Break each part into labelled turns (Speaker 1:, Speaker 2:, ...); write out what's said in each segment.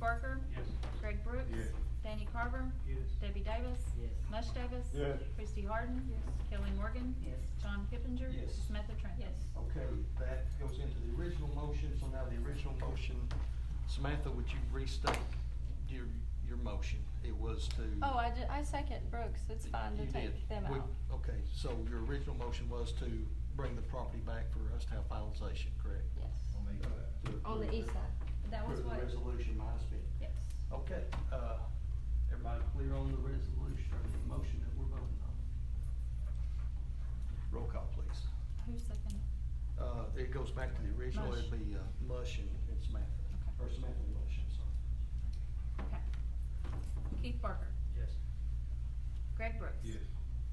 Speaker 1: Barker.
Speaker 2: Yes.
Speaker 1: Greg Brooks.
Speaker 2: Yes.
Speaker 1: Danny Carver.
Speaker 2: Yes.
Speaker 1: Debbie Davis.
Speaker 3: Yes.
Speaker 1: mush Davis.
Speaker 2: Yes.
Speaker 1: Christie Harden. Kelly Morgan.
Speaker 3: Yes.
Speaker 1: John Kipinger.
Speaker 4: Yes.
Speaker 1: Samantha Trent.
Speaker 4: Okay, that goes into the original motion, so now the original motion, Samantha, would you restate your, your motion? It was to.
Speaker 5: Oh, I ju- I second Brooks, it's fine to
Speaker 4: You
Speaker 5: take
Speaker 4: did.
Speaker 5: them
Speaker 4: We-
Speaker 5: out.
Speaker 4: Okay, so your original motion was to bring the property back for us to have finalization, correct?
Speaker 5: Yes.
Speaker 4: uh, To
Speaker 5: On the
Speaker 4: approve
Speaker 5: east side, that was
Speaker 4: approve the
Speaker 5: what,
Speaker 4: Resolution minus fifty.
Speaker 5: yes.
Speaker 4: Okay, uh, everybody clear on the resolution, or the motion that we're voting on? Roll call, please.
Speaker 1: Who's second?
Speaker 4: Uh, it goes back to the original, it'd be, uh, Mush and and Samantha,
Speaker 1: Okay.
Speaker 4: or Samantha and Mush, I'm sorry.
Speaker 1: Okay. Keith Barker.
Speaker 2: Yes.
Speaker 1: Greg Brooks.
Speaker 2: Yes.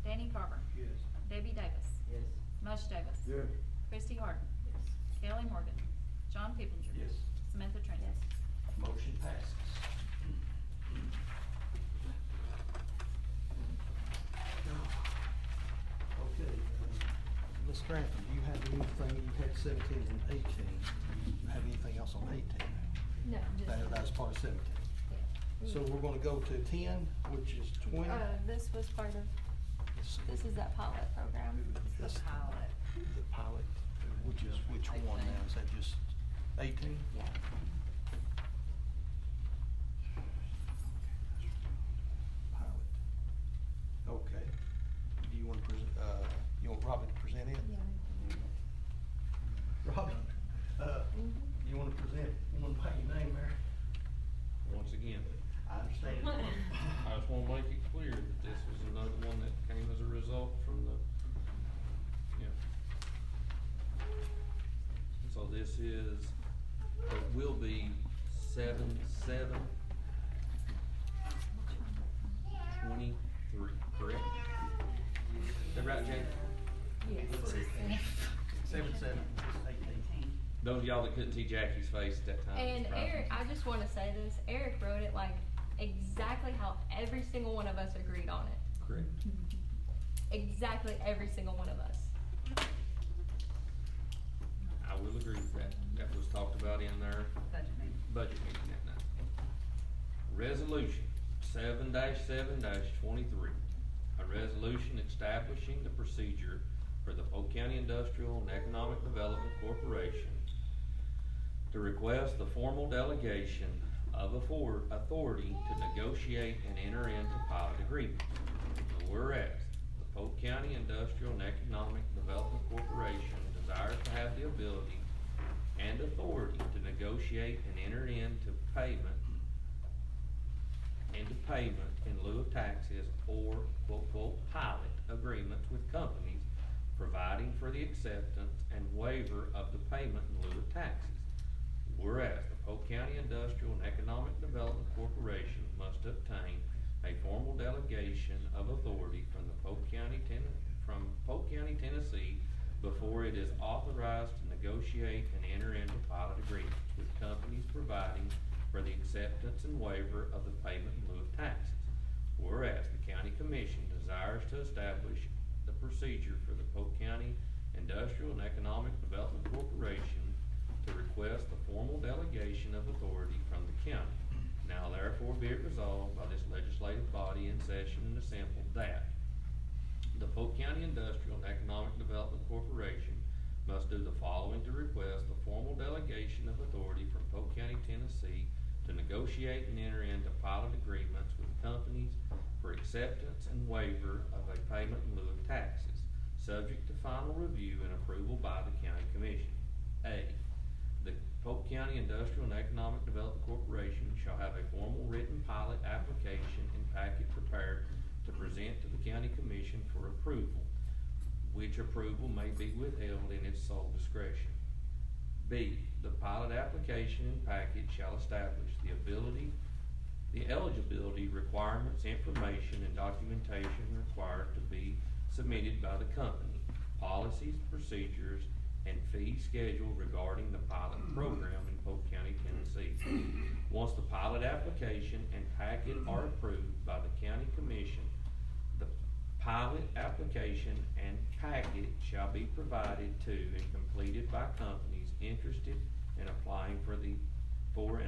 Speaker 1: Danny Carver.
Speaker 2: Yes.
Speaker 1: Debbie Davis.
Speaker 3: Yes.
Speaker 1: mush Davis.
Speaker 2: Yes.
Speaker 1: Christie Harden.
Speaker 3: Yes.
Speaker 1: Kelly Morgan. John Kipinger.
Speaker 4: Yes.
Speaker 1: Samantha Trent.
Speaker 4: Motion passes. Okay, uh, Ms. Grantham, do you have anything, you had seventeen and eighteen, do you have anything else on eighteen?
Speaker 5: No, just.
Speaker 4: That, that's part of seventeen.
Speaker 5: yeah.
Speaker 4: So we're gonna go to ten, which is twenty.
Speaker 5: Uh, this was part of,
Speaker 4: It's-
Speaker 5: this is that pilot program.
Speaker 4: That's the- The pilot, which is, which one now, is that just eighteen?
Speaker 5: Yeah.
Speaker 4: Pilot. Okay. Do you wanna present, uh, you want Robbie to present it? Robbie, uh,
Speaker 5: Mhm.
Speaker 4: you wanna present one by your name there?
Speaker 6: Once again,
Speaker 4: I understand.
Speaker 6: I just wanna make it clear that this was another one that came as a result from the, yeah. So this is, it will be seven, seven, twenty-three, correct? Is that right, Jay?
Speaker 4: Seven, seven, it's eighteen.
Speaker 6: Those of y'all that couldn't see Jackie's face at that time.
Speaker 5: And
Speaker 6: it's probably-
Speaker 5: Eric, I just wanna say this, Eric wrote it like exactly how every single one of us agreed on it.
Speaker 6: Correct.
Speaker 5: Exactly every single one of us.
Speaker 6: I will agree with that. That was talked about in there.
Speaker 3: Budget meeting.
Speaker 6: budget meeting that night. Resolution seven seven twenty-three, a resolution establishing the procedure for the Polk County Industrial and Economic Development Corporation to request the formal delegation of affor- authority to negotiate and enter into pilot agreement. And Whereas, the Polk County Industrial and Economic Development Corporation desires to have the ability and authority to negotiate and enter into payment, into payment in lieu of taxes or quote, quote, pilot agreements with companies, providing for the acceptance and waiver of the payment in lieu of taxes. Whereas the Polk County Industrial and Economic Development Corporation must obtain a formal delegation of authority from the Polk County, Ten- from Polk County, Tennessee before it is authorized to negotiate and enter into pilot agreements with companies providing for the acceptance and waiver of the payment in lieu of taxes. Whereas the county commission desires to establish the procedure for the Polk County Industrial and Economic Development Corporation to request the formal delegation of authority from the county. Now therefore be it resolved by this legislative body in session and assembled that the Polk County Industrial and Economic Development Corporation must do the following to request the formal delegation of authority from Polk County, Tennessee to negotiate and enter into pilot agreements with companies for acceptance and waiver of a payment in lieu of taxes, subject to final review and approval by the county commission. A, the Polk County Industrial and Economic Development Corporation shall have a formal written pilot application and packet prepared to present to the county commission for approval, which approval may be withheld in its sole discretion. B, the pilot application and packet shall establish the ability, the eligibility requirements, information, and documentation required to be submitted by the company, policies, procedures, and fee schedule regarding the pilot program in Polk County, Tennessee. Once the pilot application and packet are approved by the county commission, the pilot application and packet shall be provided to and completed by companies interested in applying for the, for and